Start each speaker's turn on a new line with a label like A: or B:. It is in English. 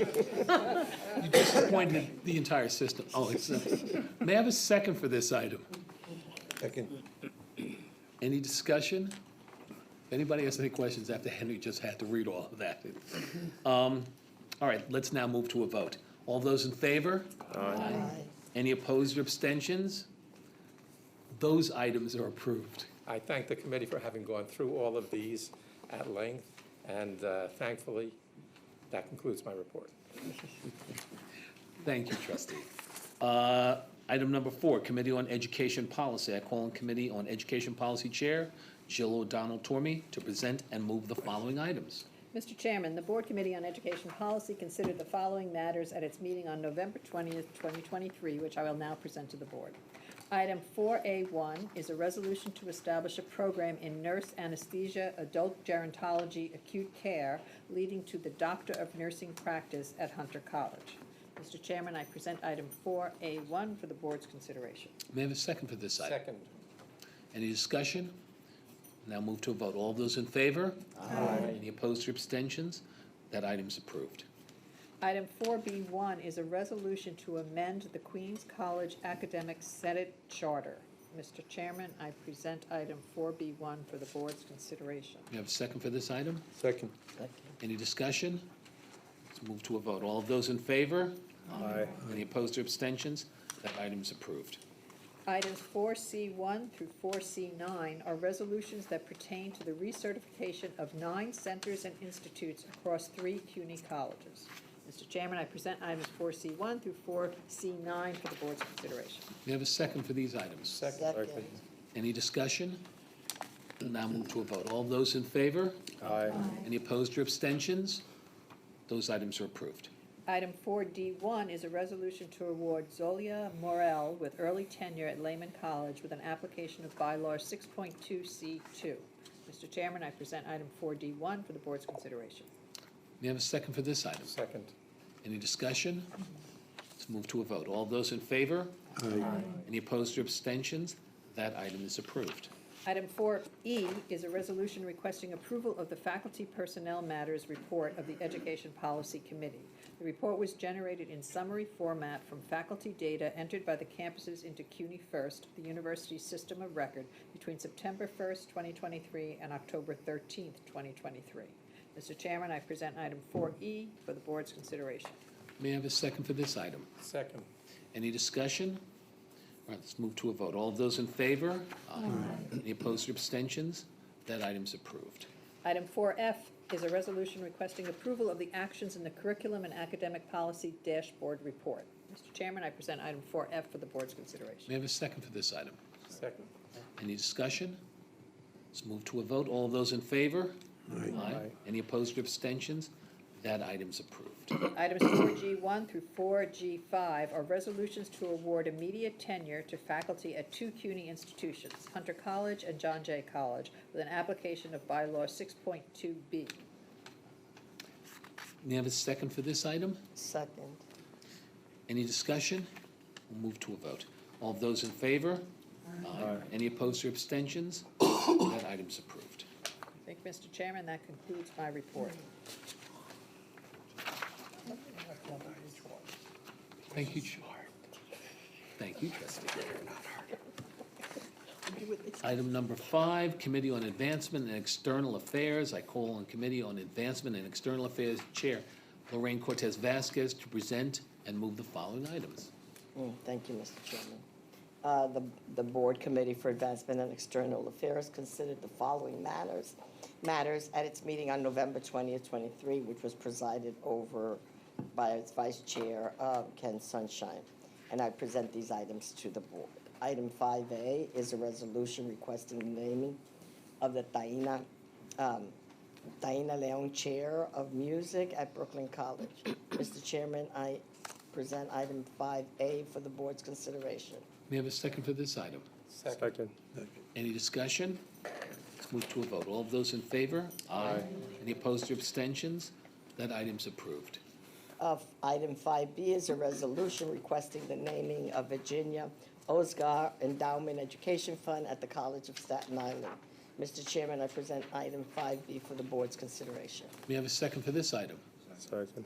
A: You disappointed the entire system. Oh, it's, may I have a second for this item?
B: Second.
A: Any discussion? If anybody has any questions after Henry just had to read all of that. Um, All right, let's now move to a vote. All those in favor? Aye. Any opposed or abstentions? Those items are approved.
C: I thank the committee for having gone through all of these at length, and uh, thankfully, that concludes my report.
A: Thank you, trustee. Uh, Item number four, Committee on Education Policy. I call on Committee on Education Policy Chair Jill O'Donnell Torme to present and move the following items.
D: Mr. Chairman, the Board Committee on Education Policy considered the following matters at its meeting on November twentieth, twenty twenty-three, which I will now present to the Board. Item four A one is a resolution to establish a program in nurse anesthesia, adult gerontology, acute care, leading to the Doctor of Nursing practice at Hunter College. Mr. Chairman, I present item four A one for the Board's consideration.
A: May I have a second for this item?
C: Second,
A: Any discussion? Now move to a vote. All those in favor? Aye. Any opposed or abstentions? That item's approved.
D: Item four B one is a resolution to amend the Queens College Academic Senate Charter. Mr. Chairman, I present item four B one for the board's consideration.
A: May I have a second for this item?
B: Second.
A: Any discussion? Let's move to a vote. All of those in favor? Aye. Any opposed or abstentions? That item's approved.
D: Items four C one through four C nine are resolutions that pertain to the recertification of nine centers and institutes across three CUNY colleges. Mr. Chairman, I present items four C one through four C nine for the board's consideration.
A: May I have a second for these items?
C: second,
A: Any discussion? Now move to a vote. All of those in favor? Aye. Any opposed or abstentions? Those items are approved.
D: Item four D one is a resolution to award Zolia Morel with early tenure at Lehman College with an application of bylaw six point two C two. Mr. Chairman, I present item four D one for the board's consideration.
A: May I have a second for this item?
C: second,
A: Any discussion? Let's move to a vote. All those in favor? Aye. Any opposed or abstentions? That item is approved.
D: Item four E is a resolution requesting approval of the Faculty Personnel Matters Report of the Education Policy Committee. The report was generated in summary format from faculty data entered by the campuses into CUNY First, the university's system of record, between September first, twenty twenty-three, and October thirteenth, twenty twenty-three. Mr. Chairman, I present item four E for the board's consideration.
A: May I have a second for this item?
C: second,
A: Any discussion? All right, let's move to a vote. All of those in favor? Aye. Any opposed or abstentions? That item's approved.
D: Item four F is a resolution requesting approval of the actions in the curriculum and academic policy dashboard report. Mr. Chairman, I present item four F for the board's consideration.
A: May I have a second for this item?
C: second,
A: Any discussion? Let's move to a vote. All of those in favor? Aye. Any opposed or abstentions? That item's approved.
D: Items four G one through four G five are resolutions to award immediate tenure to faculty at two CUNY institutions, Hunter College and John Jay College, with an application of bylaw six point two B.
A: May I have a second for this item?
E: Second.
A: Any discussion? We'll move to a vote. All of those in favor? Aye. Any opposed or abstentions? That item's approved.
D: I think, Mr. Chairman, that concludes my report.
A: Thank you, Chair. Thank you, trustee. Item number five, Committee on Advancement and External Affairs. I call on Committee on Advancement and External Affairs Chair Lorraine Cortez Vasquez to present and move the following items.
E: Mm, Thank you, Mr. Chairman. Uh, The, the Board Committee for Advancement and External Affairs considered the following matters, matters at its meeting on November twentieth, twenty-three, which was presided over by its Vice Chair, uh, Ken Sunshine. And I present these items to the Board. Item five A is a resolution requesting naming of the Taina, um, Taina Leon Chair of Music at Brooklyn College. Mr. Chairman, I present item five A for the board's consideration.
A: May I have a second for this item?
C: second,
A: Any discussion? Let's move to a vote. All of those in favor? Aye. Any opposed or abstentions? That item's approved.
E: Uh, item five B is a resolution requesting the naming of Virginia Osgar Endowment Education Fund at the College of Staten Island. Mr. Chairman, I present item five B for the board's consideration.
A: May I have a second for this item?
C: second.